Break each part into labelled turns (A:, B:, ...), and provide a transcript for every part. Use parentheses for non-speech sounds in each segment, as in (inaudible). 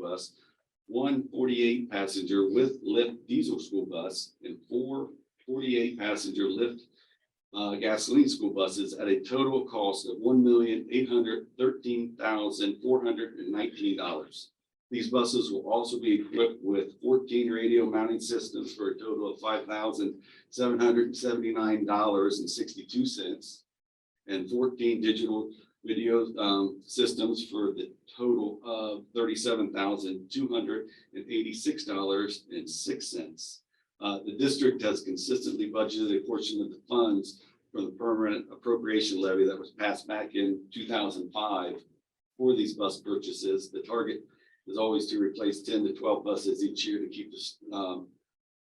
A: bus, one 48 passenger with lift diesel school bus, and four 48 passenger lift uh, gasoline school buses at a total cost of one million eight hundred thirteen thousand four hundred and nineteen dollars. These buses will also be equipped with fourteen radio mounting systems for a total of five thousand seven hundred and seventy-nine dollars and sixty-two cents. And fourteen digital video um, systems for the total of thirty-seven thousand two hundred and eighty-six dollars and six cents. Uh, the district has consistently budgeted a portion of the funds for the permanent appropriation levy that was passed back in two thousand five for these bus purchases. The target is always to replace ten to twelve buses each year to keep this um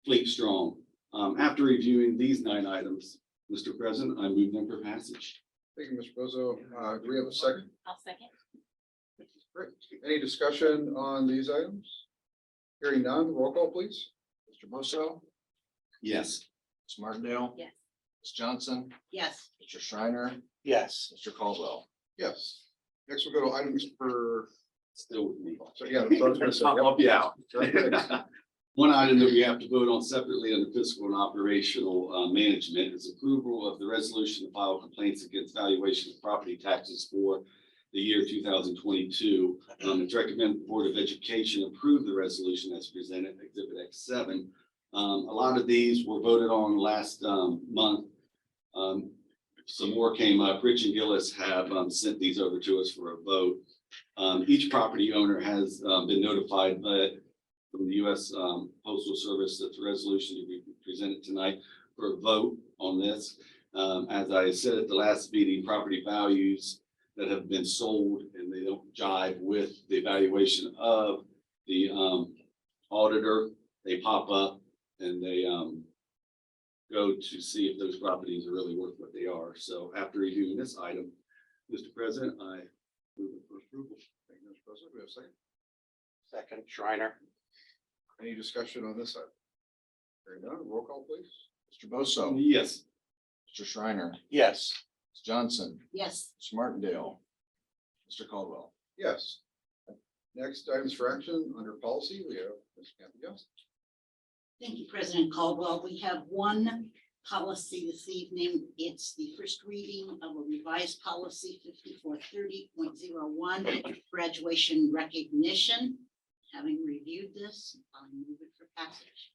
A: fleet strong. Um, after reviewing these nine items, Mr. President, I move them for passage.
B: Thank you, Mr. Bozo. Uh, do we have a second?
C: I'll second.
B: Great. Any discussion on these items? Hearing none, roll call please.
D: Mr. Bosso,
A: Yes.
D: Ms. Martindale,
C: Yes.
D: Ms. Johnson,
C: Yes.
D: Mr. Shriner,
E: Yes.
D: Mr. Caldwell.
B: Yes. Next we'll go to items per,
A: Still with me.
B: so yeah.
D: (laughs)
B: that's what I was gonna say.
A: I'll help you out.
B: Very good.
A: (laughs) One item that we have to vote on separately under fiscal and operational uh, management is approval of the resolution to file complaints against valuation of property taxes for the year two thousand twenty-two. Um, it's recommended the Board of Education approve the resolution that's presented, Exhibit X seven. Um, a lot of these were voted on last um, month. Um, some more came up. Rich and Gillis have um, sent these over to us for a vote. Um, each property owner has uh, been notified, but from the U.S. um, Postal Service that the resolution to be presented tonight for a vote on this. Um, As I said at the last meeting, property values that have been sold and they don't jive with the evaluation of the um, auditor, they pop up and they um, go to see if those properties are really worth what they are. So after reviewing this item, Mr. President, I move it for approval.
B: Thank you, Mr. Bozo. Do we have a second?
E: Second Shriner.
B: Any discussion on this item? Hearing none, roll call please.
D: Mr. Bosso,
A: Yes.
D: Mr. Shriner, Ms.
E: Yes.
D: Johnson,
C: Yes.
D: Ms. Martindale, Mr. Caldwell.
B: Yes. Next items for action under policy, we have Ms. Kathy Johnson.
C: Thank you, President Caldwell. We have one policy this evening. It's the first reading of a revised policy fifty-four thirty point zero one, graduation recognition. Having reviewed this, I move it for passage.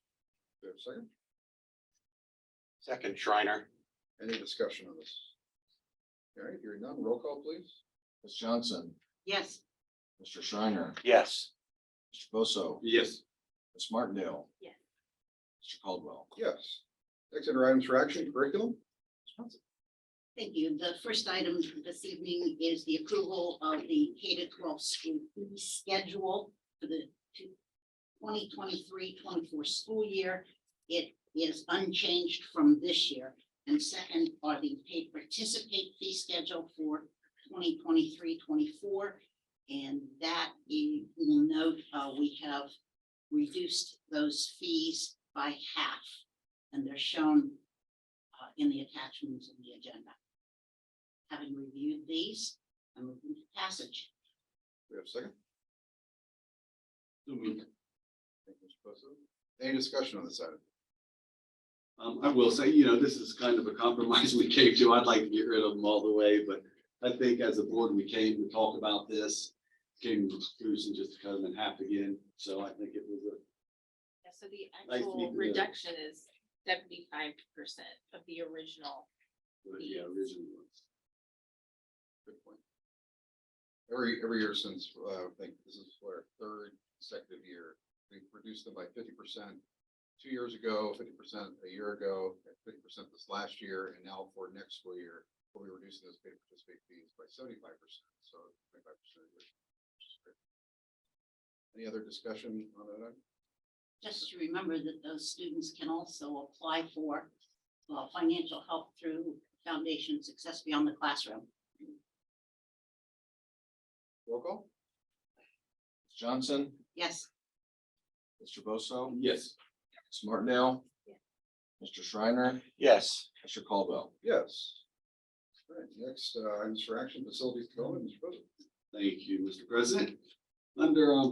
B: Do we have a second?
E: Second Shriner.
B: Any discussion on this? All right, hearing none, roll call please.
D: Ms. Johnson,
C: Yes.
D: Mr. Shriner,
E: Yes.
D: Mr. Bosso,
A: Yes.
D: Ms. Martindale.
C: Yes.
D: Mr. Caldwell.
B: Yes. Next under items for action, curriculum.
C: Thank you. The first item this evening is the approval of the K to twelve school fee schedule for the 2023-24 school year. It is unchanged from this year. And second are the paid participate fee schedule for 2023-24, And that you will note, uh, we have reduced those fees by half. And they're shown uh, in the attachments in the agenda. Having reviewed these, I'm moving to passage.
B: Do we have a second?
A: So moved.
B: Thank you, Mr. Bosso. Any discussion on this item?
A: Um, I will say, you know, this is kind of a compromise (laughs) we came to. I'd like to get rid of them all the way, but I think as a board, we came to talk about this. Came to the conclusion just to cut them in half again, so I think it was a,
F: Yeah, so the
A: Nice to meet
F: actual
A: you.
F: reduction is seventy-five percent of the original.
A: yeah, original ones.
B: Good point. Every, every year since, uh, I think this is our third consecutive year, we've reduced them by fifty percent. Two years ago, fifty percent a year ago, fifty percent this last year, and now for next school year, we'll be reducing those paid participate fees by seventy-five percent, so twenty-five percent. Any other discussion on that? item?
C: Just to remember that those students can also apply for uh, financial help through Foundation Success Beyond the Classroom.
B: Roll call?
D: Ms. Johnson,
C: Yes,
D: Mr. Bosso,
A: Yes,
D: Ms. Martindale,
F: Yeah.
D: Mr. Shriner,
E: Yes.
D: Mr. Caldwell.
B: Yes. All right, next, uh, items for action, facilities development, Mr. President.
A: thank you, Mr. President. Under, um,